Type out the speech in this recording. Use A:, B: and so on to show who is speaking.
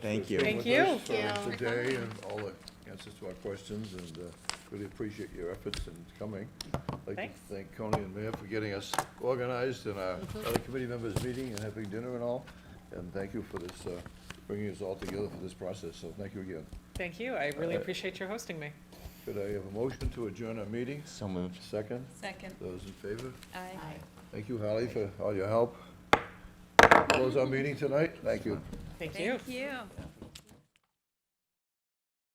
A: Thank you.
B: Thank
C: being with
B: you.
C: us, uh,
B: Thank you.
C: Today and all the answers to our questions and uh, really appreciate your efforts in coming. I'd like
B: Thanks.
C: to thank Coney and Mayor for getting us organized and our
B: Mm-hmm.
C: other committee members meeting and having dinner and all. And thank you for this, uh, bringing us all together for this process, so thank you again.
B: Thank you. I really
C: Uh,
B: appreciate your hosting me.
C: Could I have a motion to adjourn our meeting?
A: So moved.
C: Second,
D: Second.
C: those in favor?
D: Aye.
C: Thank you, Holly, for all your help. Close our meeting tonight, thank you.
B: Thank you.
D: Thank you.